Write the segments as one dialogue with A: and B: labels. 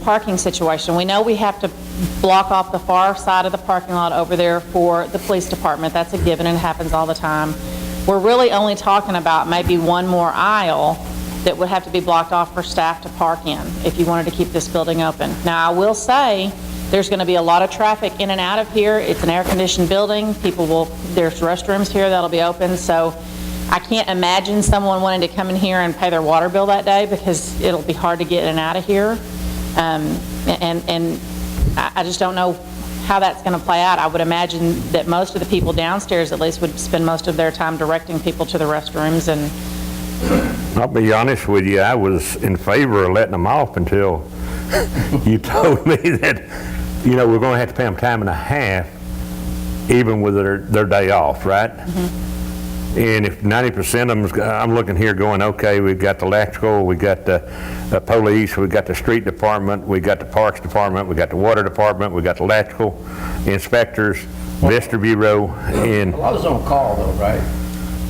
A: parking situation. We know we have to block off the far side of the parking lot over there for the police department. That's a given and it happens all the time. We're really only talking about maybe one more aisle that would have to be blocked off for staff to park in if you wanted to keep this building open. Now, I will say, there's going to be a lot of traffic in and out of here. It's an air-conditioned building. People will, there's restrooms here that'll be open, so I can't imagine someone wanting to come in here and pay their water bill that day because it'll be hard to get in and out of here. Um, And, and I I just don't know how that's going to play out. I would imagine that most of the people downstairs at least would spend most of their time directing people to the restrooms and,
B: I'll be honest with you, I was in favor of letting them off until you told me that, you know, we're going to have to pay them time and a half even with their, their day off, right?
A: Mm-hmm.
B: And if 90% of them, I'm looking here going, okay, we've got the electrical, we got the uh, police, we got the street department, we got the parks department, we got the water department, we got the electrical inspectors, Vista Bureau, and,
C: A lot is on call though, right?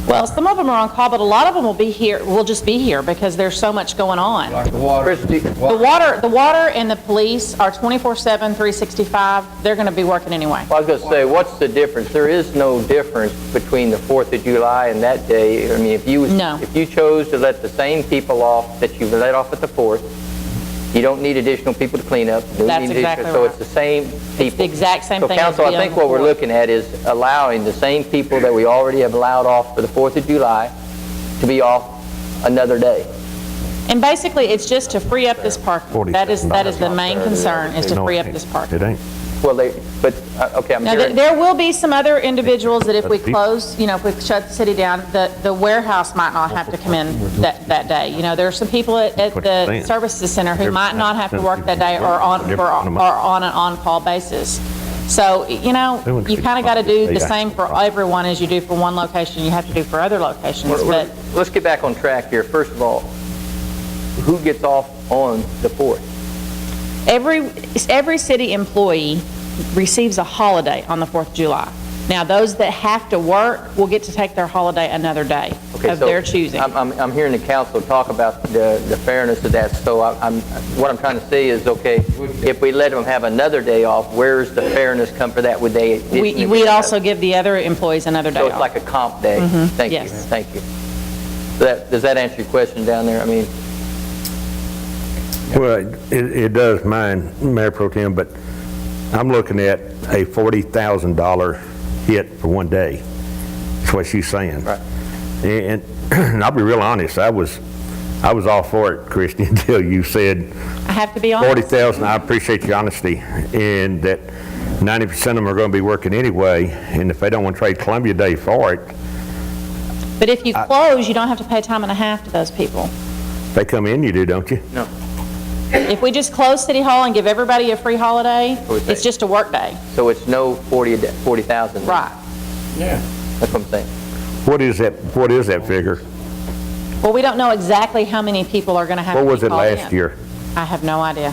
A: well, some of them are on call, but a lot of them will be here, will just be here because there's so much going on.
C: Like the water.
A: The
C: Well,
A: water, the water and the police are 24/7, 365. They're going to be working anyway.
D: Well, I was going to say, what's the difference? There is no difference between the 4th of July and that day. I mean, if you,
A: No.
D: if you chose to let the same people off that you let off at the 4th, you don't need additional people to clean up. You don't
A: That's
D: need additional-
A: exactly
D: So
A: right.
D: it's the same people.
A: exact same thing
D: So
A: as
D: council,
A: the
D: I think
A: other
D: what we're
A: four.
D: looking at is allowing the same people that we already have allowed off for the 4th of July to be off another day.
A: And basically, it's just to free up this parking. That is, that is the main concern, is to free up this
B: it
A: parking.
B: ain't.
D: Well, they, but, uh, okay, I'm
A: Now, there-
D: hearing.
A: there will be some other individuals that if we
B: That's deep.
A: close, you know, if we shut the city down, the the warehouse might not have to come in that, that day. You know, there are some people at at the services center who might not have to work that day or on, or or on an on-call basis. So, you know, you kind of got to do the same for everyone as you do for one location, you have to do for other locations,
D: We're-
A: but...
D: we're- Let's get back on track here. First of all, who gets off on the 4th?
A: Every, every city employee receives a holiday on the 4th of July. Now, those that have to work will get to take their holiday another day
D: Okay,
A: of
D: so
A: their choosing.
D: I'm, I'm, I'm hearing the council talk about the, the fairness of that, so I- I'm, what I'm trying to say is, okay, if we let them have another day off, where's the fairness come for that? Would they?
A: We, we'd also give the other employees another
D: So
A: day
D: it's
A: off. Mm-hmm.
D: like a comp day? Thank you,
A: yes.
D: thank you. That, does that answer your question down there? I mean,
B: Well, it, it does mine, Mayor Pro Tem, but I'm looking at a $40,000 hit for one day. That's what she's saying.
D: Right.
B: And, and I'll be real honest, I was, I was all for it, Christie, until you said
A: I have to be honest.
B: 40,000, I appreciate your honesty, and that 90% of them are going to be working anyway, and if they don't want to trade Columbia Day for it,
A: But if you close, you don't have to pay time and a half to those people.
B: they come in, you do, don't you?
D: no.
A: If we just close City Hall and give everybody a free holiday,
D: would
A: it's
D: think.
A: just a work day.
D: So it's no 40, a day- 40,000?
A: Right.
C: yeah.
D: That's what I'm saying.
B: What is that, what is that figure?
A: Well, we don't know exactly how many people are going to have to
B: What
A: be
B: was it
A: called
B: last
A: in.
B: year?
A: I have no idea.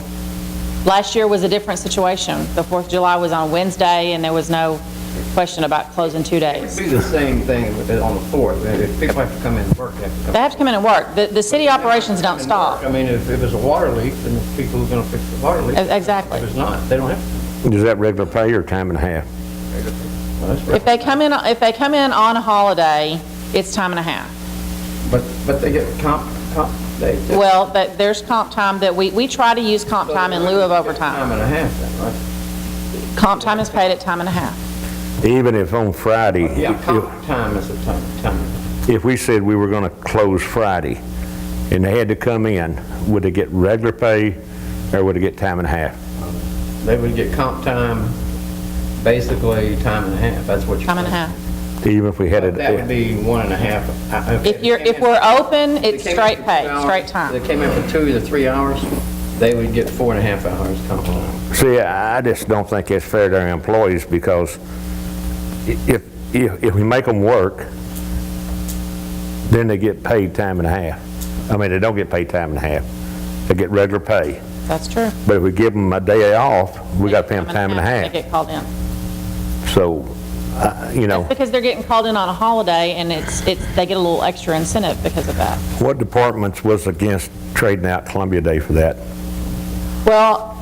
A: Last year was a different situation. The 4th of July was on Wednesday, and there was no question about closing two days.
C: Do the same thing with it on the fourth. If people have to come in and work, they have to come.
A: They have to come in and work. The, the city operations don't
C: and work. I
A: stop.
C: mean, if it was a water leak, then the people who are gonna fix the water leak.
A: E- exactly.
C: If it's not, they don't have to.
B: Is that regular pay or time and a half?
C: Well, that's
A: If
C: right.
A: they come in, if they come in on a holiday, it's time and a half.
C: But, but they get comp, comp, they.
A: Well, that, there's comp time that we, we try to use comp time in lieu of
C: Time
A: overtime.
C: and a half then, right?
A: Comp time is paid at time and a half.
B: Even if on Friday,
C: Yeah,
B: if
C: comp time is a time, time.
B: if we said we were going to close Friday and they had to come in, would they get regular pay or would they get time and a half?
C: They would get comp time, basically time and a half. That's what you're.
A: Time and a
C: saying.
A: half.
B: Even if we had it,
C: That would be one and a half. I-
A: If you're,
C: they came
A: if
C: in-
A: we're open,
C: they
A: it's
C: came in
A: straight
C: for two
A: pay,
C: hours,
A: straight
C: They
A: time.
C: came in for two to three hours, they would get four and a half hours comp time.
B: see, I just don't think it's fair to our employees because i- if, if, if we make them work, then they get paid time and a half. I mean, they don't get paid time and a half. They get regular pay.
A: That's true.
B: But if we give them a day off, we got to pay them time and a
A: They
B: half.
A: get called in.
B: So, uh, you know.
A: Because they're getting called in on a holiday, and it's, it's, they get a little extra incentive because of that.
B: What departments was against trading out Columbia Day for that?
A: Well,